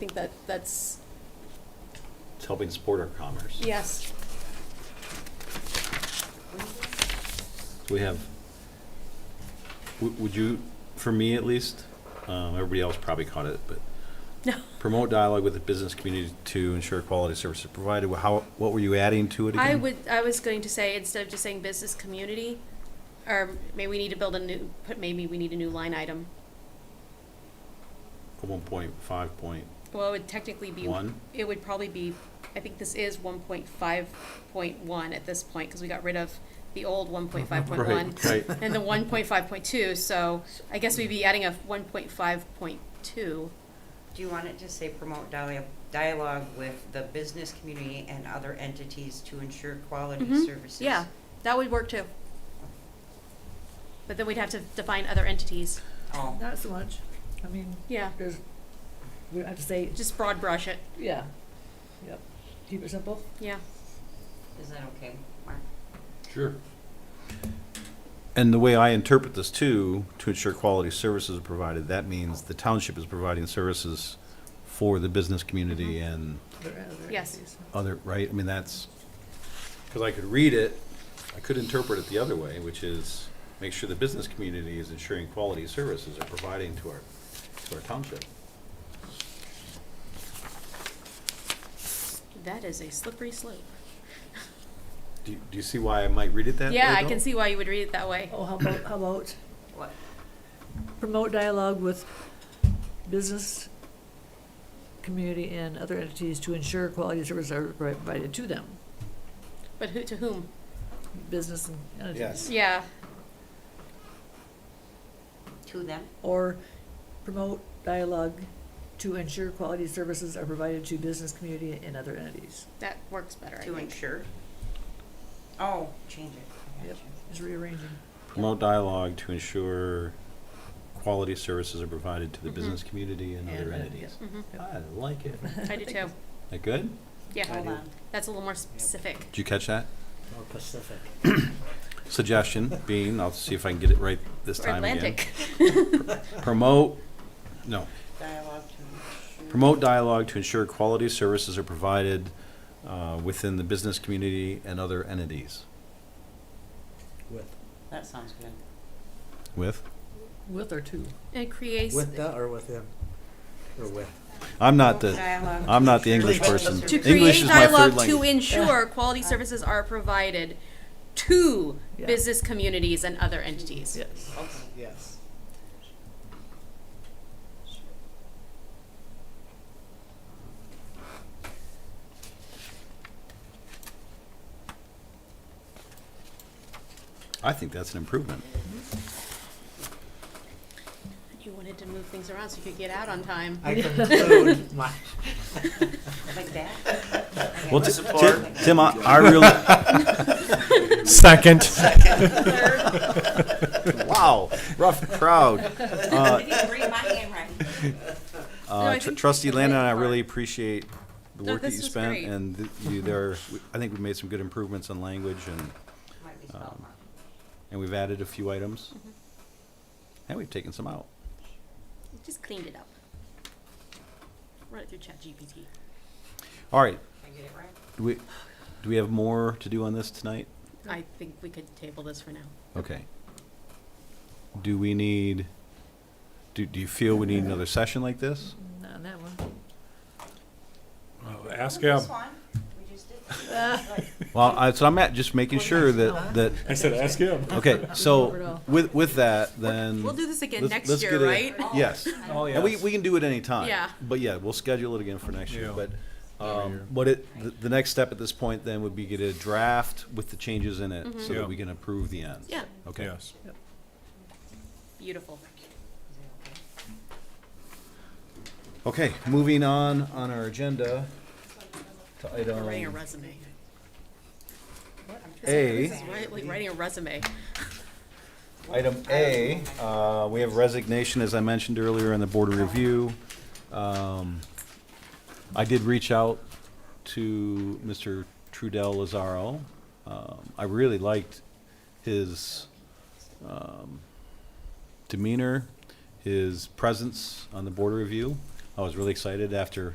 think that, that's, It's helping support our commerce. yes, So we have, w- would you, for me at least, um, everybody else probably caught it, but no, promote dialogue with the business community to ensure quality services provided. Well, How, what were you adding to it again? I would, I was going to say, instead of just saying business community, or maybe we need to build a new, put, maybe we need a new line item. One point five point Well, it would technically be. one. It would probably be, I think this is one point five point one at this point, because we got rid of the old one point five point one. Right, right. And the one point five point two, so I guess we'd be adding a one point five point two. Do you want it to say promote dialogue, dialogue with the business community and other entities to ensure quality Mhm. services? Yeah, that would work too. But then we'd have to define other entities. Oh, Not so much. I mean, Yeah, there's, we don't have to say, just broad brush it. yeah, yep, keep it simple. Yeah, is that okay, Mark? Sure. And the way I interpret this too, to ensure quality services are provided, that means the township is providing services for the business community Mm-hmm. and There are other Yes. issues. other, right? I mean, that's, because I could read it, I could interpret it the other way, which is make sure the business community is ensuring quality services are providing to our, to our township. that is a slippery slope. Do, you- do you see why I might read it that way? Yeah, I though? can see why you would read it that way. Oh, how about, how about What? promote dialogue with business, community, and other entities to ensure quality services are provided to them, But who, to whom? business and Yes. entities. Yeah, To them? Or promote dialogue to ensure quality services are provided to business, community, and other entities. that works better, I To think. ensure? Oh, change it. I Yep. gotcha. Just rearranging. Promote dialogue to ensure quality services are provided to the Mhm. business community and other And, uh, yeah. entities. Mhm. I like it. I do too. That good? Yeah, Hold on. that's a little more specific. Did you catch that? More Pacific. Suggestion being, I'll see if I can get it right this Or time again. Atlantic. Promote, no, Dialogue to ensure. promote dialogue to ensure quality services are provided uh, within the business community and other entities. With, That sounds good. With? With or to. It creates, with the or with him? Or with? I'm not Promote the, dialogue I'm to not the ensure English quality person. to services. English create is my third dialogue to language. ensure quality services are provided to Yeah. business communities and other entities. Yes. Okay. Yes. I think that's an improvement. You wanted to move things around so you could get out on time. I conclude my. Like that? Okay. Well, Ti- Ti- Support. Tim, I I really. Second. Wow, rough crowd. Uh, I didn't read my handwriting. No, I Uh, tr- think Trustee that's a Landon, great I part. really appreciate the No, work that this you was spent great. and th- you there, we- I think we've made some good improvements in language and, Might be spelled Um, wrong. and we've added a few items. Mm-hmm. And we've taken some out. Just cleaned it up. Run it through ChatGPT. All right, Did I get it right? do we, do we have more to do on this tonight? I think we could table this for now. Okay. Do we need, do, do you feel we need another session like this? Not on that one. Well, Ask Oh, him. This one, we just did. this. Right. Well, I, so I'm at, just making sure that, that, I said, ask him. okay, so with, with that, then. We'll do this again let's- next let's year, get a- right? Oh, Yes. I don't- And we, we can do it anytime. Yeah. But yeah, we'll schedule it again for next year, Yeah. but, um, what it, the, the next step at this point then would be get a draft with the changes in it, so Yeah. that we can approve the end. Mm-hmm. Yeah, Okay. Yes. beautiful. Is it okay? Okay, moving on, on our agenda to We're Writing a item resume. This A. is right- like writing a resume. Item A, uh, we have resignation, as I mentioned earlier, in the board of review. Um, I did reach out to Mr. Trudell Lazaro. Um, I really liked his um, demeanor, his presence on the board of review. I was really excited after